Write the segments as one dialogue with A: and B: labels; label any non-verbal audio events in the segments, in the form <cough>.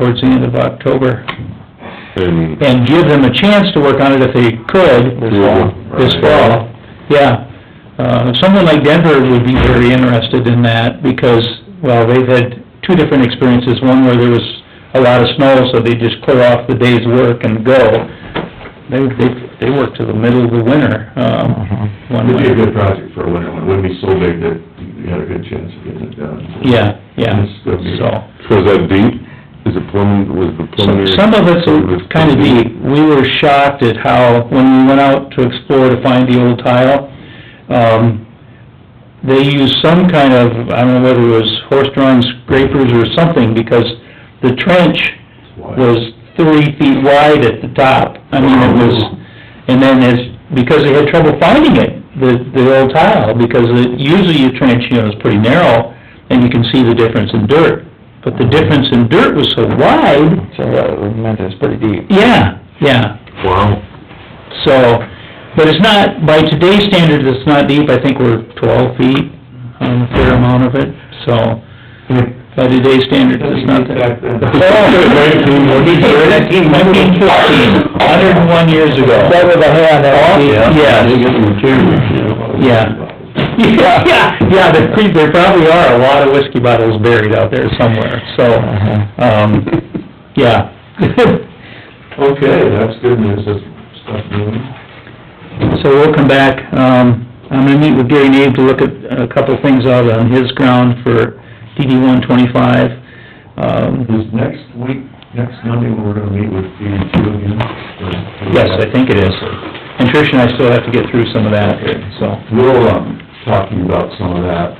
A: towards the end of October,
B: And,
A: and give them a chance to work on it if they could.
B: This fall.
A: This fall, yeah. Uh, someone like Denver would be very interested in that, because, well, they've had two different experiences, one where there was a lot of snow, so they just clear off the day's work and go. They, they, they work to the middle of the winter, um,
B: Mm-hmm.
A: one
C: It'd be a
A: winter.
C: good project for a winter one, it wouldn't be so big that you had a good chance of getting it done.
A: Yeah, yeah,
C: It's gonna be-
A: so.
B: so is that deep? Is it plumbing, was the
A: So
B: preliminary?
A: Some of it's kinda deep. We were shocked at how, when we went out to explore to find the old tile, um, they used some kind of, I don't know whether it was horse drawn scrapers or something, because the trench
C: it's wide.
A: was three feet wide at the top. I mean, it was, and then it's, because they had trouble finding it, the, the old tile, because it- usually your trench, you know, is pretty narrow, and you can see the difference in dirt. But the difference in dirt was so wide,
D: So that meant it's pretty deep.
A: yeah, yeah,
B: Wow.
A: so, but it's not, by today's standards, it's not deep, I think we're twelve feet on a fair amount of it, so, by today's standards, it's not that.
B: Nineteen, what did you say?
A: Nineteen fifteen, hundred and one years ago.
D: That was a hand, that was deep.
A: Yes. Yeah, yeah, yeah, there, pre- there probably are a lot of whiskey bottles buried out there somewhere, so,
D: Uh-huh.
A: um, yeah.
C: Okay, that's good news, that's stuff moving.
A: So we'll come back, um, I'm gonna meet with Gary Nave to look at a couple of things out on his ground for DD one twenty-five. Um,
C: Is next week, next Monday, when we're gonna meet with D two again? Or-
A: yes, I think it is. And Trish and I still have to get through some of that, so.
C: We'll, um, talking about some of that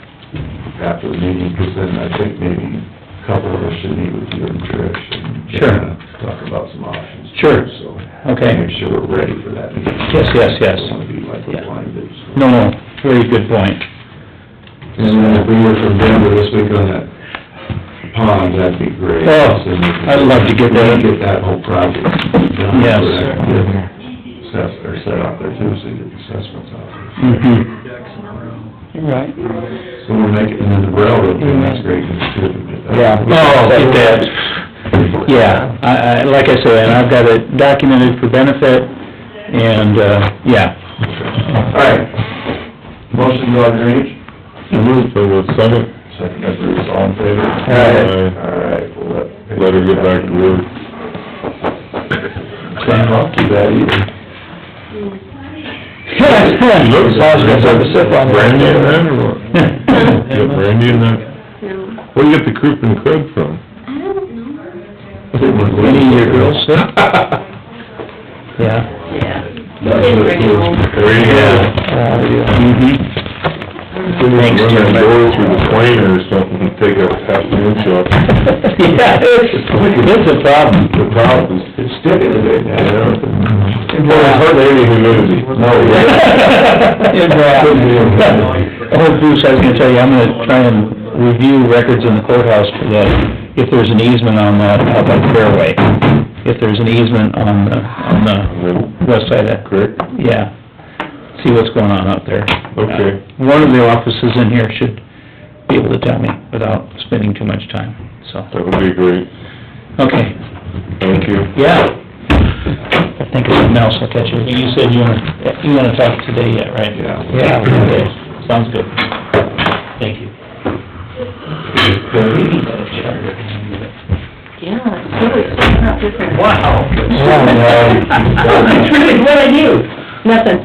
C: after the meeting, because then I think maybe a couple of us should meet with you and Trish and.
A: Sure.
C: uh, Talk about some options. too,
A: Sure.
C: So.
A: Okay.
C: Make sure we're ready for that meeting.
A: Yes, yes, yes.
C: Don't wanna be like
A: Yeah.
C: a blind date.
A: No, no, very good point.
C: And then if we were from Denver this week on that pond, that'd be great.
A: Oh,
C: Then we can-
A: I'd love to get that.
C: Get that whole project done.
A: Yes.
C: So that can get Assess, or set up there too, so you get the assessments out.
A: Mhm.
D: Right.
C: So we're making, and then the railroad, thing, that's great, because too, if we get that.
D: Yeah.
A: Oh, get that. Yeah, I, I, like I said, and I've got it documented for benefit, and, uh, yeah.
C: All right. Motion to go on drainage?
B: I moved to the second,
C: Second, by Bruce, all in favor?
B: Aye.
C: All right, we'll let.
B: let her get back to work.
C: Can't rock you that either.
B: She looks- Brandy in that or what? You got brandy in that?
E: No,
B: Where'd you get the croup and crud
E: I
B: from?
E: don't know.
A: Any of your girls sick? Yeah.
E: Yeah.
C: That's what it is.
B: There you go.
A: Mm-hmm. Thanks,
B: Run
A: Jim.
B: that door through the plane or something, and take a half an inch off.
A: <laughs> Yeah, it's, it's a problem.
B: The problem is,
C: It's sticking today, now.
B: it hardly any humidity.
A: <laughs> Oh, Bruce, I was gonna tell you, I'm gonna try and review records in the courthouse for that, if there's an easement on that, up on Fairway. If there's an easement on the, on the west side of,
B: Correct?
A: yeah, see what's going on out there. Uh,
B: Okay.
A: One of the offices in here should be able to tell me without spending too much time, so,
B: That would be great.
A: okay,
B: Thank you.
A: yeah. I think of something else, I'll catch you. You said you wanna, you wanna talk today yet, right?
C: Yeah.
A: Yeah, okay, sounds good. Thank you.
E: Yeah, it's really, it's not different.
A: Wow.
E: That's really what I do. Nothing.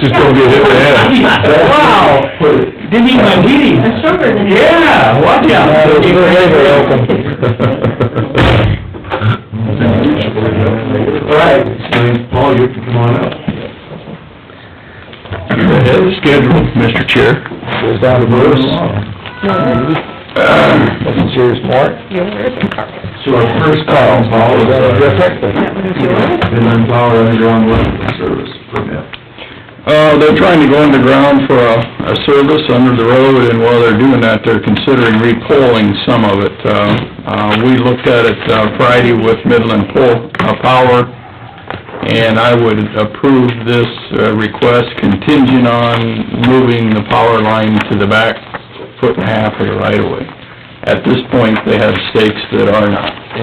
B: Just don't get hit in the head.
A: Wow. Didn't eat my Wheaties.
E: I'm stronger than you.
A: Yeah, watch out.
B: You're
A: <laughs>
C: All right, so, Paul, you can come on up.
B: Schedule, Mr. Chair.
C: Goes down to Bruce.
D: That's yours, Mark.
C: So our first call, Paul, is
D: Is that
C: our...
D: different?
E: That one is yours?
C: Inland Power Underground Wetland Service permit.
F: Uh, they're trying to go underground for a, a service under the road, and while they're doing that, they're considering repolling some of it. Uh, uh, we looked at it uh, Friday with Midland Pol, uh, Power, and I would approve this uh, request contingent on moving the power line to the back foot and a half of the right-of-way. At this point, they have stakes that are not.